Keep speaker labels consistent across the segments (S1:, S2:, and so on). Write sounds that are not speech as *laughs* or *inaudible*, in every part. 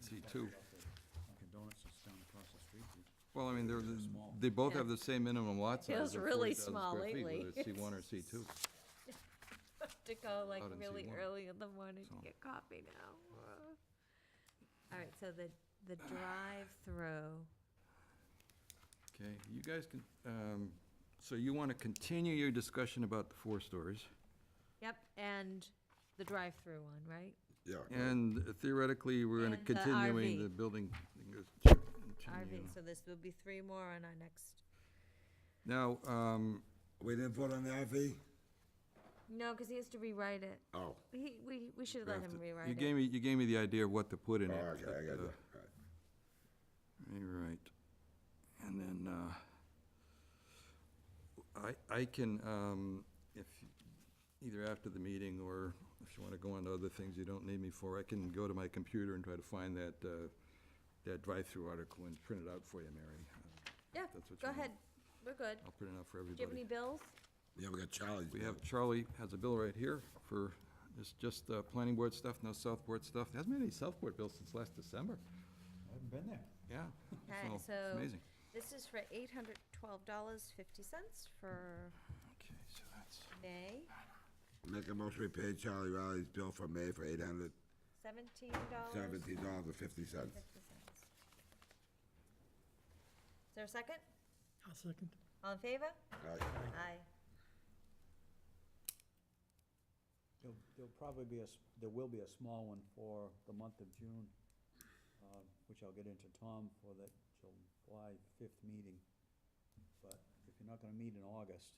S1: see two.
S2: Dunkin' Donuts is down across the street.
S1: Well, I mean, they're, they both have the same minimum lot size.
S3: Feels
S1: of
S3: really
S1: 40,000
S3: small
S1: square feet,
S3: lately.
S1: Whether it's C one or C
S3: *laughs*
S1: two.
S3: to go like
S1: Out in
S3: really
S1: C1.
S3: early in the morning
S1: So-
S3: to get coffee now. Ugh. All right, so the, the drive-through,
S1: Okay, you guys can, um, so you want to continue your discussion about the four stories?
S3: yep, and the drive-through one, right?
S4: Yeah.
S1: And theoretically, we're going to
S3: And the
S1: continuing
S3: RV.
S1: the building. continue.
S3: RV, so this will be three more on our next,
S1: Now, um,
S4: We didn't vote on the RV?
S3: no, because he has to rewrite it.
S4: Oh,
S3: He, we, we should let him
S1: you
S3: rewrite
S1: gave
S3: it.
S1: me, you gave me the idea of what to put in
S4: oh,
S1: it.
S4: okay, I got you.
S1: but, uh,
S4: All
S1: You're right. And then, uh, I, I can, um, if, either after the meeting or if you want to go on to other things you don't need me for, I can go to my computer and try to find that, uh, that drive-through article and print it out for you, Mary. Uh,
S3: Yeah,
S1: that's what
S3: go
S1: you want.
S3: ahead, we're good.
S1: I'll print it out for
S3: Do you have any
S1: everybody.
S3: bills?
S4: Yeah, we got Charlie's.
S1: We
S4: bill.
S1: have, Charlie has a bill right here for, it's just, uh, planning board stuff, no South Board stuff. There Hasn't been any South Board bills since last December.
S2: I haven't been there.
S1: Yeah.
S3: Okay,
S1: it's
S3: so
S1: Amazing.
S3: this is for eight hundred twelve dollars fifty cents for
S1: Okay, so that's.
S3: May,
S4: Make a motion, we pay Charlie Riley's bill for May for eight hundred
S3: seventeen dollars
S4: seventeen dollars and fifty cents.
S3: fifty cents. Is there a second?
S5: I'll second.
S3: All in favor? Aye.
S2: There'll, there'll probably be a, s- there will be a small one for the month of June, uh, which I'll get into Tom for that July fifth meeting. But if you're not gonna meet in August,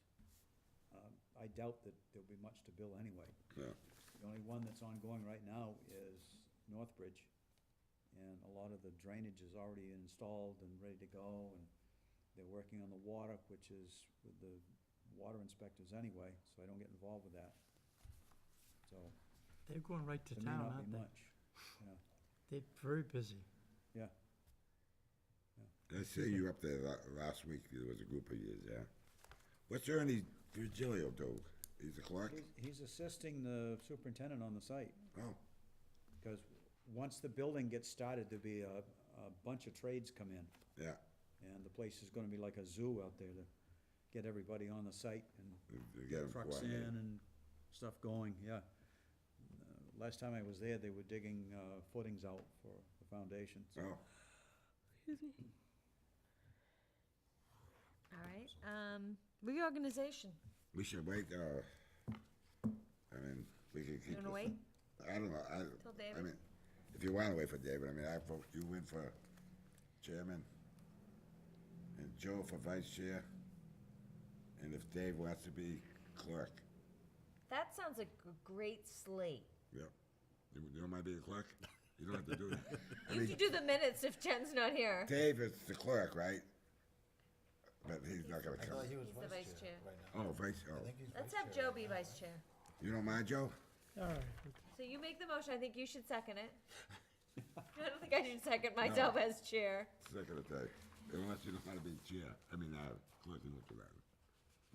S2: um, I doubt that there'll be much to bill anyway.
S4: Yeah,
S2: The only one that's ongoing right now is Northbridge, and a lot of the drainage is already installed and ready to go, and they're working on the water, which is with the water inspectors anyway, so I don't get involved with that. So,
S5: They're going right to
S2: there may
S5: town,
S2: not
S5: aren't
S2: be
S5: they?
S2: much, yeah,
S5: They're very busy.
S2: yeah.
S4: I see you up there la- last week, there was a group of yous, yeah. What's Ernie Virgilio do? He's a clerk?
S2: He's- He's assisting the superintendent on the site,
S4: Oh,
S2: because once the building gets started, there'll be a, a bunch of trades come in.
S4: yeah,
S2: And the place is gonna be like a zoo out there to get everybody on the site and
S4: we we get him
S2: trucks
S4: quiet.
S2: in and stuff going, yeah. Uh, Last time I was there, they were digging, uh, footings out for the foundations.
S4: Oh,
S3: All right, um, reorganization.
S4: we should wait, uh, I mean, we could
S3: You
S4: keep.
S3: wanna
S4: this-
S3: wait?
S4: I don't know, I,
S3: Till
S4: I
S3: David?
S4: mean, if you wanna wait for David, I mean, I vote you in for chairman, and Joe for vice chair, and if Dave wants to be clerk,
S3: That sounds like a great slate.
S4: yeah. You, you don't mind being clerk? You don't have to do that. I
S3: You
S4: mean,
S3: can do the minutes if Jen's not here.
S4: *laughs* Dave is the clerk, right? But he's not gonna come.
S3: He's the vice chair.
S4: Oh, vice, oh,
S3: Let's have Joe be vice chair.
S4: you don't mind, Joe?
S5: All right,
S3: So you make the motion, I think you should second *laughs* it. I don't think I should second myself as chair.
S4: Second of that, unless you don't want to be chair, I mean, uh, clerk, you look at that,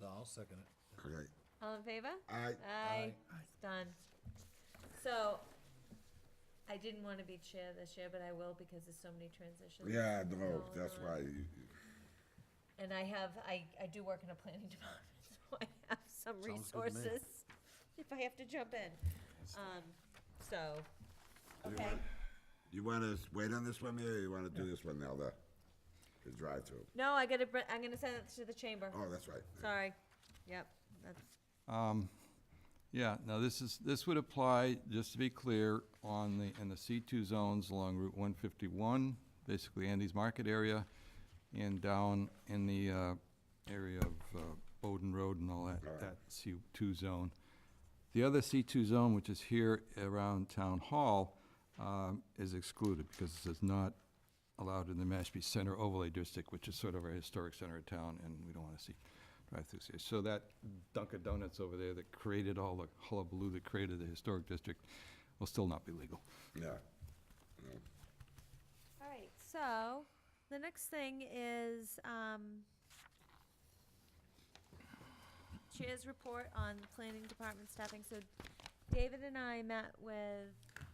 S6: No, I'll second it.
S4: okay?
S3: All in favor?
S4: Aye.
S3: Aye. It's done. So, I didn't wanna be chair this year, but I will because there's so many transitions.
S4: Yeah, no,
S3: going
S4: that's
S3: on.
S4: why you,
S3: And I have, I, I do work in a planning *laughs* department, so I have some
S6: Sounds good to me.
S3: resources *laughs* if I have to jump in. Um, so,
S4: You
S3: okay,
S4: want- You want to wait on this one, Mary, or you want to do this one now, the, the drive-through?
S3: no, I gotta, br- I'm gonna send it to the chamber,
S4: Oh, that's right.
S3: sorry, yep, that's,
S1: Um, Yeah, now this is, this would apply, just to be clear, on the, in the C2 zones along Route 151, basically Andy's Market area, and down in the uh, area of uh, Bowden Road and all that, that C2 zone. The other C2 zone, which is here around Town Hall, um, is excluded because this is not allowed in the Mashpee Center overlay district, which is sort of our historic center of town, and we don't want to see drive-throughs here. So that Dunkin' Donuts over there that created all the hullabaloo that created the historic district will still not be legal.
S4: Yeah.
S3: All right, so the next thing is um, Chair's report on the planning department staffing. So David and I met with